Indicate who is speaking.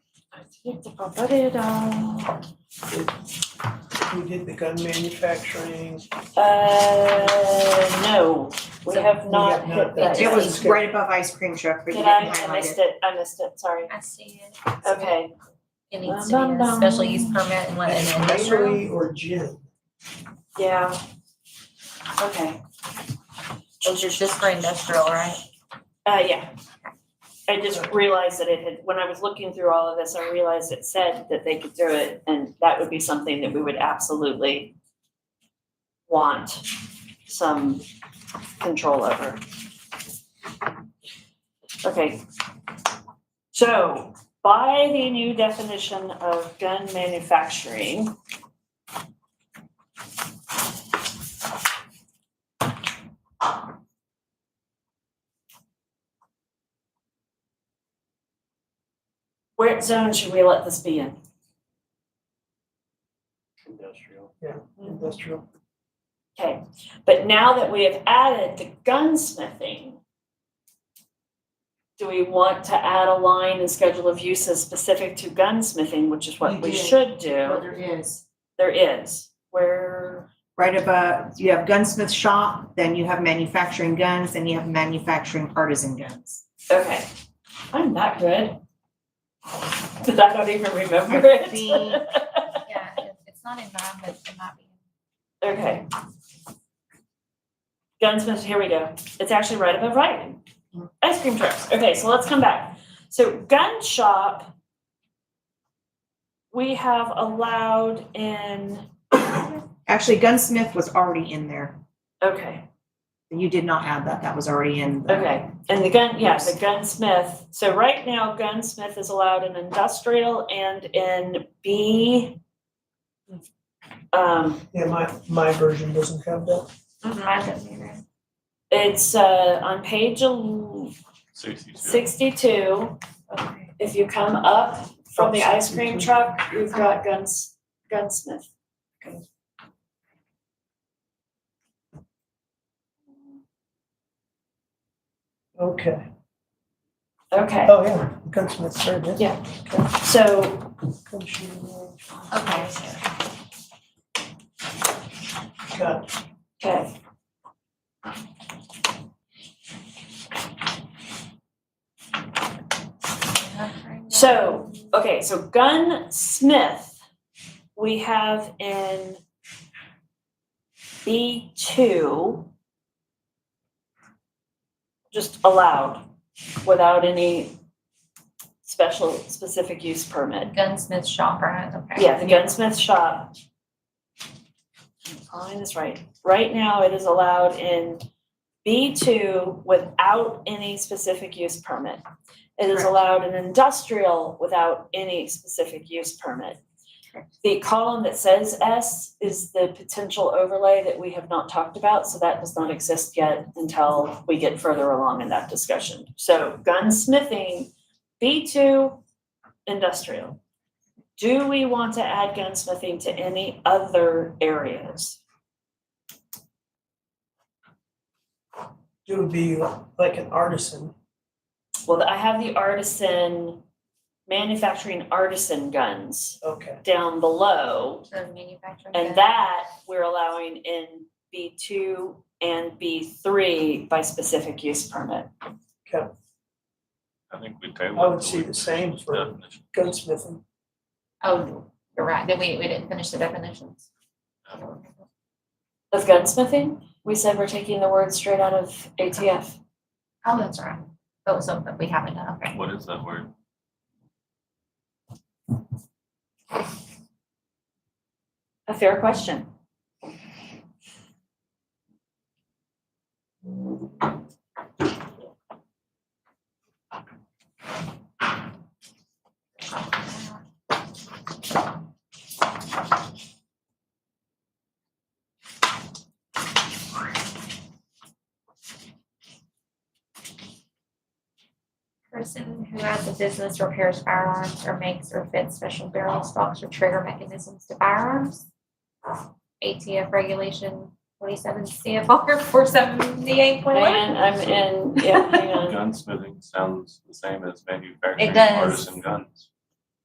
Speaker 1: Uh,
Speaker 2: We did the gun manufacturing.
Speaker 1: Uh, no, we
Speaker 3: So
Speaker 1: have not
Speaker 2: have not
Speaker 1: hit
Speaker 2: done
Speaker 1: that.
Speaker 2: It
Speaker 3: It
Speaker 2: was
Speaker 3: was right above ice cream truck, but you
Speaker 1: Did
Speaker 3: didn't
Speaker 1: I, I
Speaker 3: highlight
Speaker 1: missed
Speaker 3: it.
Speaker 1: it, I missed it, sorry.
Speaker 4: I see it.
Speaker 1: Okay,
Speaker 4: It needs to be a special use permit and let an industrial.
Speaker 2: Bakery or gin?
Speaker 1: yeah. Okay,
Speaker 4: Those are just for industrial, right?
Speaker 1: uh, yeah. I just realized that it had, when I was looking through all of this, I realized it said that they could do it, and that would be something that we would absolutely want some control over. Okay. So by the new definition of gun manufacturing. What zone should we let this be in?
Speaker 5: Industrial.
Speaker 2: Industrial.
Speaker 1: Okay, but now that we have added the gunsmithing, do we want to add a line in schedule of uses specific to gunsmithing, which is
Speaker 3: You
Speaker 1: what we
Speaker 3: did.
Speaker 1: should do?
Speaker 3: there is.
Speaker 1: There is, where,
Speaker 3: Right above, you have gunsmith shop, then you have manufacturing guns, then you have manufacturing artisan guns.
Speaker 1: okay, I'm not good. But I don't even remember it.
Speaker 3: The-
Speaker 4: Yeah, if it's not in mine, but it might be.
Speaker 1: Okay. Gunsmith, here we go. It's actually right above writing. Ice cream trucks. Okay, so let's come back. So gun shop, we have allowed in,
Speaker 3: Actually, gunsmith was already in there.
Speaker 1: okay,
Speaker 3: You did not add that, that was already in. the-
Speaker 1: okay. And the gun, yeah, the gunsmith. So right now gunsmith is allowed in industrial and in B. Um,
Speaker 2: Yeah, my, my version doesn't have that.
Speaker 4: Mine doesn't either.
Speaker 1: it's uh on page el-
Speaker 5: Sixty-two.
Speaker 1: sixty-two.
Speaker 4: Okay.
Speaker 1: if you come up from the ice cream truck, you've got guns, gunsmith.
Speaker 2: Okay.
Speaker 1: Okay,
Speaker 2: Oh, yeah, gunsmith, sorry, yeah.
Speaker 1: Yeah. so
Speaker 2: Gun shooting range.
Speaker 4: Okay,
Speaker 2: Got it.
Speaker 1: Okay. So, okay, so gunsmith, we have in B two. Just allowed, without any special specific use permit.
Speaker 4: gunsmith shop, right? Okay.
Speaker 1: Yeah, the gunsmith shop. Line is right. Right now, it is allowed in B two without any specific use permit. It is
Speaker 3: Correct.
Speaker 1: allowed in industrial without any specific use permit. The column that says S is the potential overlay that we have not talked about, so that does not exist yet until we get further along in that discussion. So gunsmithing, B two, industrial. Do we want to add gunsmithing to any other areas?
Speaker 2: It would be like an artisan.
Speaker 1: Well, I have the artisan, manufacturing artisan guns
Speaker 2: Okay.
Speaker 1: down below.
Speaker 4: The manufacturing.
Speaker 1: And that we're allowing in B two and B three by specific use permit.
Speaker 5: I think we tabled.
Speaker 2: I would see the same for
Speaker 5: Definition.
Speaker 2: gunsmithing.
Speaker 4: Oh, you're right, then we, we didn't finish the definitions.
Speaker 1: Of gunsmithing, we said we're taking the word straight out of ATF.
Speaker 4: Oh, that's right. That was something we haven't done, okay.
Speaker 5: What is that word?
Speaker 1: A fair question.
Speaker 4: Person who has a business repairs firearms or makes or fits special barrels, stocks, or trigger mechanisms to firearms. Uh, ATF regulation twenty-seven CFR four seventy-eight point one.
Speaker 1: And I'm in, yeah, hang on.
Speaker 5: Gunsmithing sounds the same as
Speaker 4: It
Speaker 5: manufacturing
Speaker 4: does.
Speaker 5: artisan guns.